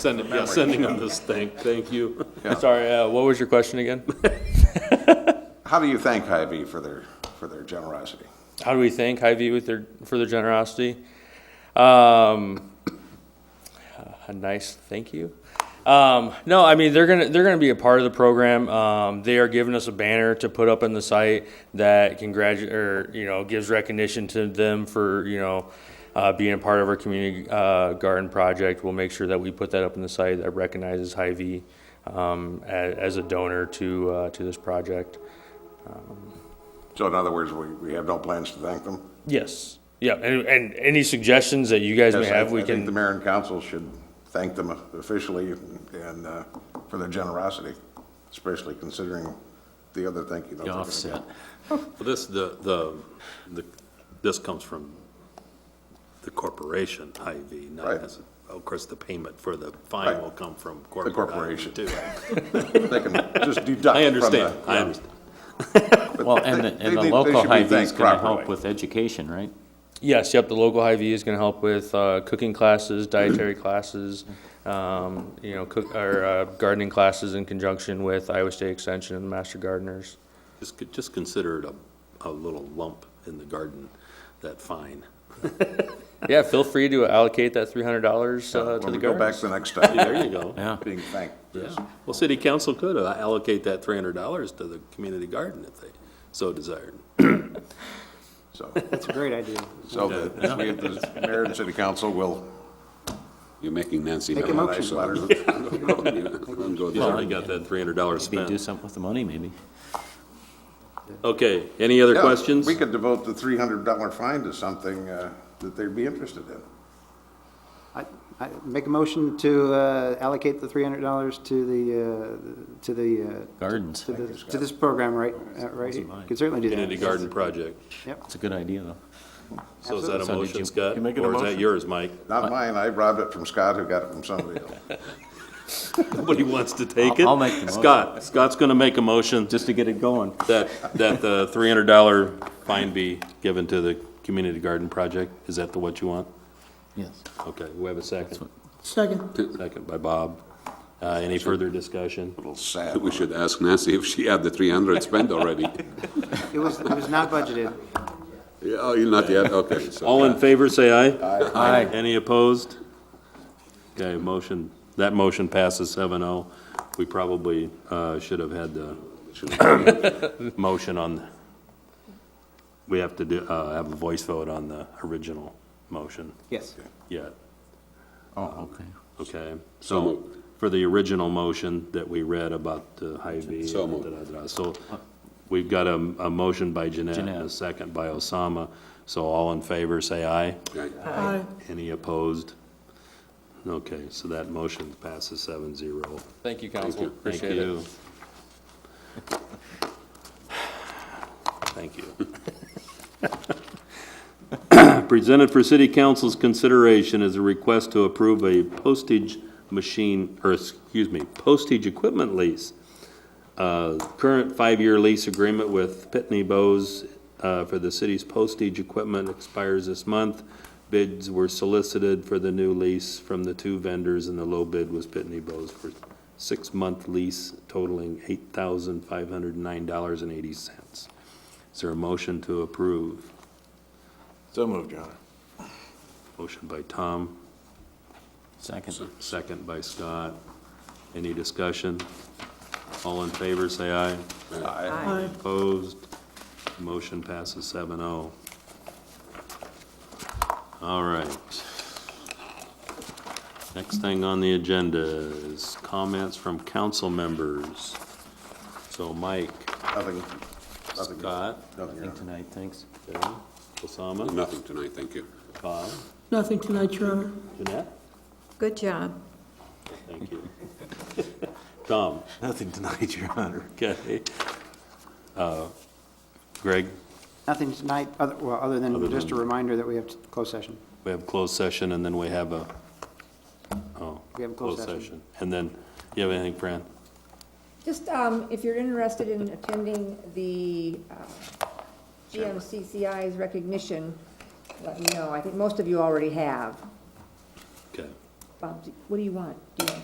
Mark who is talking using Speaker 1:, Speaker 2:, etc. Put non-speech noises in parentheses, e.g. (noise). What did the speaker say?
Speaker 1: Send it, yeah, sending them this thing, thank (laughs) you.
Speaker 2: Sorry, uh, what was your question again?
Speaker 3: How do you thank Hy-Vee for their, for thetheir generosity?
Speaker 2: (laughs) How do we thank Hy-Vee with their, for their generosity? Um, uh, a nice thank you. Um, no, I mean, they're gonna, they're gonna be a part of the program. Um, they are giving us a banner to put up in the site that congratu, or, you know, gives recognition to them for, you know, uh, being a part of our community, uh, garden project. We'll make sure that we put that up in the site that recognizes Hy-Vee, um, as, as a donor to, uh, to this project.
Speaker 3: So in other words, we, we have no plans to thank them?
Speaker 2: Yes. Yeah, and, and any suggestions that you guys may
Speaker 3: Yes, I-
Speaker 2: have, we
Speaker 3: I think the
Speaker 2: can,
Speaker 3: mayor and council should thank them officially and, uh, for their generosity, especially considering the other thank you. notes
Speaker 1: The
Speaker 3: they're gonna
Speaker 1: offset.
Speaker 3: get.
Speaker 1: Well, This, the, the, the this comes from the corporation, Hy-Vee, not
Speaker 3: Right.
Speaker 1: as, of course, the payment for the
Speaker 3: Right.
Speaker 1: fine will come from corporate. Hy-Vee,
Speaker 3: corporation.
Speaker 1: too.
Speaker 3: They can just deduct (laughs) from the.
Speaker 1: I understand, I understand.
Speaker 3: but
Speaker 4: Well,
Speaker 3: they-
Speaker 4: and
Speaker 3: they
Speaker 4: the, and the
Speaker 3: need- they
Speaker 4: local
Speaker 3: should be
Speaker 4: Hy-Vee's
Speaker 3: thanked
Speaker 4: gonna
Speaker 3: properly.
Speaker 4: help with education, right?
Speaker 2: yes, yep, the local Hy-Vee is gonna help with, uh, cooking classes, dietary classes, um, you know, cook, or, uh, gardening classes in conjunction with Iowa State Extension and the Master Gardeners.
Speaker 1: Just, c- just consider it a, a little lump in the garden, that fine.
Speaker 2: Yeah, feel free to allocate that three hundred dollars, uh, to the
Speaker 3: When we go back
Speaker 2: gardens.
Speaker 3: the next
Speaker 1: There
Speaker 3: time,
Speaker 1: you go.
Speaker 4: Yeah.
Speaker 3: being thanked.
Speaker 1: Yeah. Well, city council could allocate that three hundred dollars to the community garden if they so desired.
Speaker 3: So,
Speaker 5: (laughs) That's a great idea.
Speaker 3: so the, we, the mayor and city council will
Speaker 6: You're making Nancy.
Speaker 5: Make a
Speaker 6: mad.
Speaker 5: motion.
Speaker 6: Let him go
Speaker 1: He's
Speaker 6: there.
Speaker 1: already got that three hundred dollars
Speaker 4: Maybe do
Speaker 1: spent.
Speaker 4: something with the money, maybe.
Speaker 1: Okay, any other
Speaker 3: Yeah,
Speaker 1: questions?
Speaker 3: We could devote the three hundred dollar fine to something uh, that they'd be interested in.
Speaker 5: I, I make a motion to uh, allocate the three hundred dollars to the, uh, to the, uh,
Speaker 4: Gardens,
Speaker 5: to this, to this program, right, uh, right here. Can certainly do that.
Speaker 1: Community garden project.
Speaker 5: Yep.
Speaker 4: it's a good idea, though.
Speaker 1: So is that a
Speaker 4: So did
Speaker 1: motion,
Speaker 4: you-
Speaker 1: Scott?
Speaker 7: you making a
Speaker 1: Or is that
Speaker 7: motion?
Speaker 1: yours, Mike?
Speaker 3: Not mine, I robbed it from Scott, who got it from somebody else.
Speaker 1: Nobody wants to take it?
Speaker 4: I'll- I'll make the motion.
Speaker 1: Scott, Scott's gonna make a motion
Speaker 4: Just to get it going.
Speaker 1: that, that the three hundred dollar fine be given to the community garden project. Is that the what you want?
Speaker 4: Yes.
Speaker 1: Okay, we have a second.
Speaker 5: Second.
Speaker 1: Second by Bob. Uh, any further discussion?
Speaker 3: A little sad.
Speaker 6: We should ask Nancy if she had the three hundred spent
Speaker 1: (laughs)
Speaker 6: already.
Speaker 5: It was, it was not budgeted.
Speaker 6: Yeah, Oh, you're not yet, okay. so-
Speaker 1: All in favor, say aye.
Speaker 4: Aye.
Speaker 1: Any opposed? Okay, motion, that motion passes seven oh. We probably, uh, should have had the
Speaker 6: (laughs)
Speaker 1: motion on, we have to do, uh, have a voice vote on the original motion
Speaker 5: Yes.
Speaker 1: yet,
Speaker 4: Oh, okay.
Speaker 1: okay?
Speaker 6: So
Speaker 1: So,
Speaker 6: moved.
Speaker 1: for the original motion that we read about the Hy-Vee.
Speaker 6: So moved.
Speaker 1: da-da-da-da. So, we've got a, a motion by Jeanette and a
Speaker 4: Jeanette.
Speaker 1: second by Osama. So all in favor, say aye.
Speaker 6: Right.
Speaker 1: Any opposed? Okay, so that motion passes seven zero.
Speaker 2: Thank you, council,
Speaker 1: Thank
Speaker 2: appreciate it.
Speaker 1: you. Thank you. (laughs) Presented for city council's consideration is a request to approve a postage machine, or excuse me, postage equipment lease. Uh, Current five-year lease agreement with Pitney Bowes uh, for the city's postage equipment expires this month. Bids were solicited for the new lease from the two vendors, and the low bid was Pitney Bowes for six-month lease totaling $8,509.80. Is there a motion to approve?
Speaker 7: So moved, Your Honor.
Speaker 1: Motion by Tom,
Speaker 4: Second.
Speaker 1: second by Scott. Any discussion? All in favor, say aye. Aye. Opposed? Motion passes seven oh. All right. Next thing on the agenda is comments from council members. So Mike,
Speaker 3: Nothing, nothing.
Speaker 1: Scott,
Speaker 3: nothing, Your
Speaker 4: Think
Speaker 3: Honor.
Speaker 4: tonight, thanks.
Speaker 1: Bill, Osama,
Speaker 6: Nothing tonight, thank you.
Speaker 1: Bob,
Speaker 8: Nothing tonight, Your Honor.
Speaker 1: Jeanette?
Speaker 8: Good job.
Speaker 1: Thank you. Tom?
Speaker 7: Nothing tonight, Your Honor.
Speaker 1: Okay. Uh, Greg,
Speaker 5: Nothing tonight, other, well, other
Speaker 1: Other
Speaker 5: than just a
Speaker 1: than-
Speaker 5: reminder that we have closed session.
Speaker 1: we have closed session, and then we have a, oh.
Speaker 5: We have a closed session.
Speaker 1: And then, you have anything, Fran?
Speaker 9: Just, um, if you're interested in attending the, uh, GMCCI's recognition, let me know. I think most of you already have.
Speaker 1: Okay.
Speaker 9: Bob, what do you want? Do you want